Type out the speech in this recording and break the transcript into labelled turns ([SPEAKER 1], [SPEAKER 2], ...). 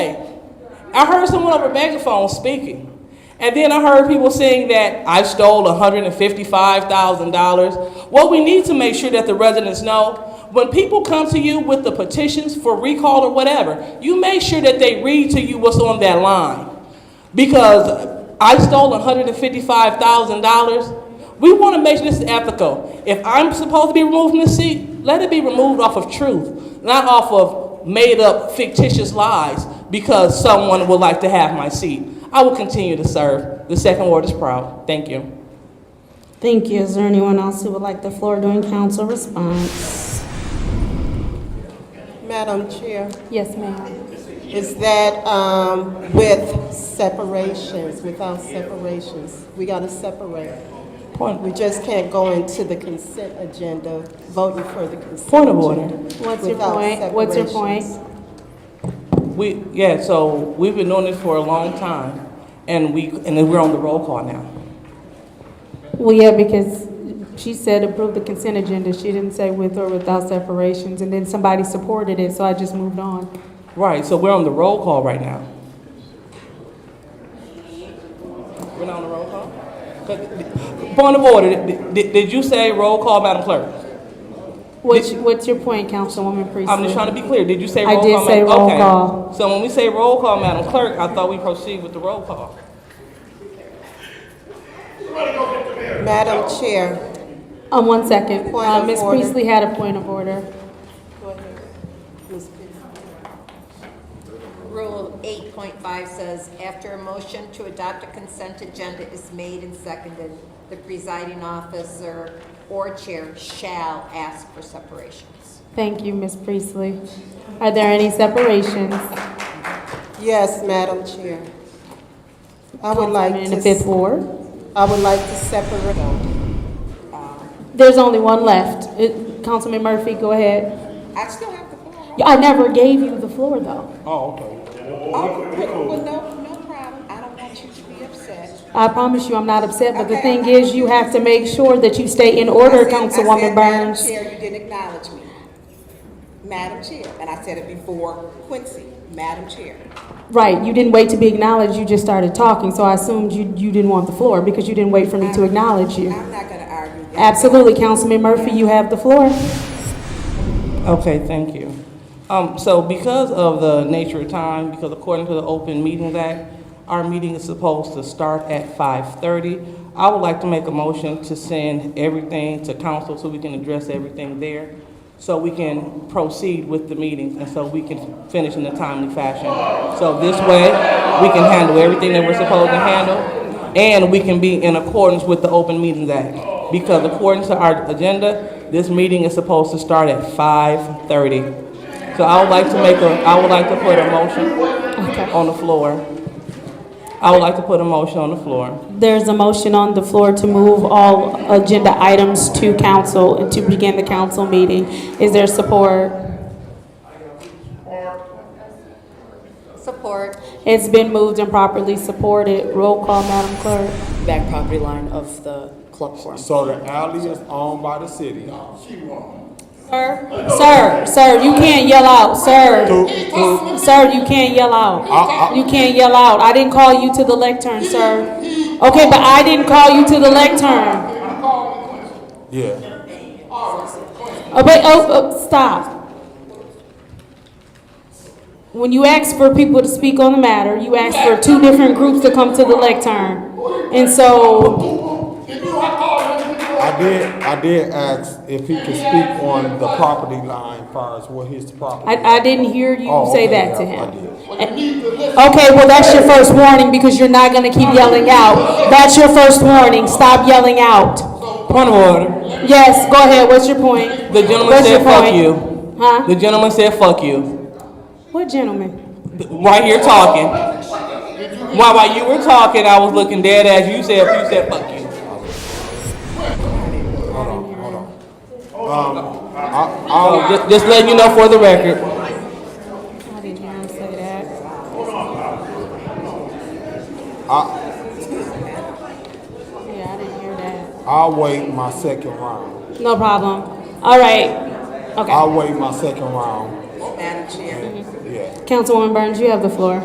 [SPEAKER 1] I heard someone over megaphone speaking. And then I heard people saying that I stole $155,000. What we need to make sure that the residents know when people come to you with the petitions for recall or whatever, you make sure that they read to you what's on that line. Because I stole $155,000. We want to make sure this is ethical. If I'm supposed to be removed from the seat, let it be removed off of truth, not off of made up fictitious lies because someone would like to have my seat. I will continue to serve. The second ward is proud. Thank you.
[SPEAKER 2] Thank you. Is there anyone else who would like the floor during council response?
[SPEAKER 3] Madam Chair,
[SPEAKER 2] Yes, ma'am.
[SPEAKER 3] is that um, with separations, without separations? We got to separate.
[SPEAKER 1] Point,
[SPEAKER 3] We just can't go into the consent agenda, voting for the consent.
[SPEAKER 1] Point of order.
[SPEAKER 3] agenda
[SPEAKER 2] What's your
[SPEAKER 3] without
[SPEAKER 2] point? What's your point?
[SPEAKER 3] separations.
[SPEAKER 1] we, yeah, so we've been doing this for a long time, and we, and then we're on the roll call now.
[SPEAKER 2] Well, yeah, because she said approve the consent agenda. She didn't say with or without separations, and then somebody supported it, so I just moved on.
[SPEAKER 1] Right, so we're on the roll call right now. We're not on the roll call? 'Cause- Point of order, did, did- did you say roll call, Madam Clerk?
[SPEAKER 2] What's, what's your point, Councilwoman Priestley?
[SPEAKER 1] I'm just trying to be clear, did you say
[SPEAKER 2] I
[SPEAKER 1] roll call?
[SPEAKER 2] did
[SPEAKER 1] Madam-
[SPEAKER 2] say roll
[SPEAKER 1] okay.
[SPEAKER 2] call.
[SPEAKER 1] So when we say roll call, Madam Clerk, I thought we proceed with the roll call.
[SPEAKER 3] Madam Chair,
[SPEAKER 2] Um, one second.
[SPEAKER 3] Point
[SPEAKER 2] Uh,
[SPEAKER 3] of
[SPEAKER 2] Ms.
[SPEAKER 3] order.
[SPEAKER 2] Priestley had a point of order.
[SPEAKER 3] Ms. Pierce.
[SPEAKER 4] Rule 8.5 says, after a motion to adopt a consent agenda is made and seconded, the presiding officer or chair shall ask for separations.
[SPEAKER 2] Thank you, Ms. Priestley. Are there any separations?
[SPEAKER 3] yes, Madam Chair. I would like
[SPEAKER 2] in
[SPEAKER 3] to,
[SPEAKER 2] the fifth
[SPEAKER 3] s-
[SPEAKER 2] ward?
[SPEAKER 3] I would like to
[SPEAKER 4] Oh,
[SPEAKER 3] separate.
[SPEAKER 2] There's only one left. It- Councilman Murphy, go ahead.
[SPEAKER 4] I still have the floor.
[SPEAKER 2] I never gave you the floor, though.
[SPEAKER 1] Oh, okay.
[SPEAKER 4] Oh, well, no, no problem. I don't want you to be upset.
[SPEAKER 2] I promise you, I'm not upset, but the
[SPEAKER 4] Okay.
[SPEAKER 2] thing is, you have to make sure that you stay in
[SPEAKER 4] I
[SPEAKER 2] order,
[SPEAKER 4] said- I
[SPEAKER 2] Councilwoman
[SPEAKER 4] said, Madam
[SPEAKER 2] Burns.
[SPEAKER 4] Chair, you didn't acknowledge me. Madam Chair, and I said it before Quincy, Madam Chair.
[SPEAKER 2] Right, you didn't wait to be acknowledged, you just started talking, so I assumed you, you didn't want the floor because you didn't wait for me to acknowledge you.
[SPEAKER 4] I'm not going to argue that.
[SPEAKER 2] Absolutely, Councilman Murphy, you have the floor.
[SPEAKER 1] Okay, thank you. Um, so because of the nature of time, because according to the Open Meetings Act, our meeting is supposed to start at five-thirty. I would like to make a motion to send everything to council so we can address everything there, so we can proceed with the meetings, and so we can finish in a timely fashion. So this way, we can handle everything that we're supposed to handle, and we can be in accordance with the Open Meetings Act. Because according to our agenda, this meeting is supposed to start at 5:30. So I would like to make a, I would like to put a motion on the floor. I would like to put a motion on the floor.
[SPEAKER 2] There's a motion on the floor to move all agenda items to council and to begin the council meeting. Is there support?
[SPEAKER 4] Support.
[SPEAKER 2] It's been moved and properly supported. Roll call, Madam Clerk.
[SPEAKER 5] back property line of the club forum.
[SPEAKER 6] So the alley is owned by the city.
[SPEAKER 2] Sir, sir, sir, you can't yell out, sir.
[SPEAKER 6] Through- through-
[SPEAKER 2] Sir, you can't yell
[SPEAKER 6] I-
[SPEAKER 2] out.
[SPEAKER 6] I-
[SPEAKER 2] You can't yell out. I didn't call you to the lectern, sir. Okay, but I didn't call you to the lectern.
[SPEAKER 6] Yeah.
[SPEAKER 2] Oh, but, oh, oh, stop. When you ask for people to speak on the matter, you ask for two different groups to come to the lectern. And so,
[SPEAKER 6] I did, I did ask if he could speak on the property line far as what his property.
[SPEAKER 2] I, I didn't hear you
[SPEAKER 6] Oh,
[SPEAKER 2] say
[SPEAKER 6] okay,
[SPEAKER 2] that to
[SPEAKER 6] yeah, I
[SPEAKER 2] him.
[SPEAKER 6] did.
[SPEAKER 2] Okay, well, that's your first warning because you're not gonna keep yelling out. That's your first warning. Stop yelling out.
[SPEAKER 1] Point of order.
[SPEAKER 2] Yes, go ahead. What's your point?
[SPEAKER 1] The gentleman
[SPEAKER 2] What's your
[SPEAKER 1] said, "Fuck
[SPEAKER 2] point?"
[SPEAKER 1] you." The
[SPEAKER 2] Huh?
[SPEAKER 1] gentleman said, "Fuck you,"
[SPEAKER 2] What gentleman?
[SPEAKER 1] Th- right here talking. While while you were talking, I was looking dead at you. You said, "You said fuck you."
[SPEAKER 6] I,
[SPEAKER 1] So Um, just, just letting you know for the record.
[SPEAKER 2] I didn't hear him say that. Yeah, I didn't hear that.
[SPEAKER 6] I, I'll wait my second round.
[SPEAKER 2] No problem. All right. Okay.
[SPEAKER 6] I'll wait my second round.
[SPEAKER 4] Madam Chair.
[SPEAKER 6] Yeah.
[SPEAKER 2] Councilwoman Burns, you have the floor.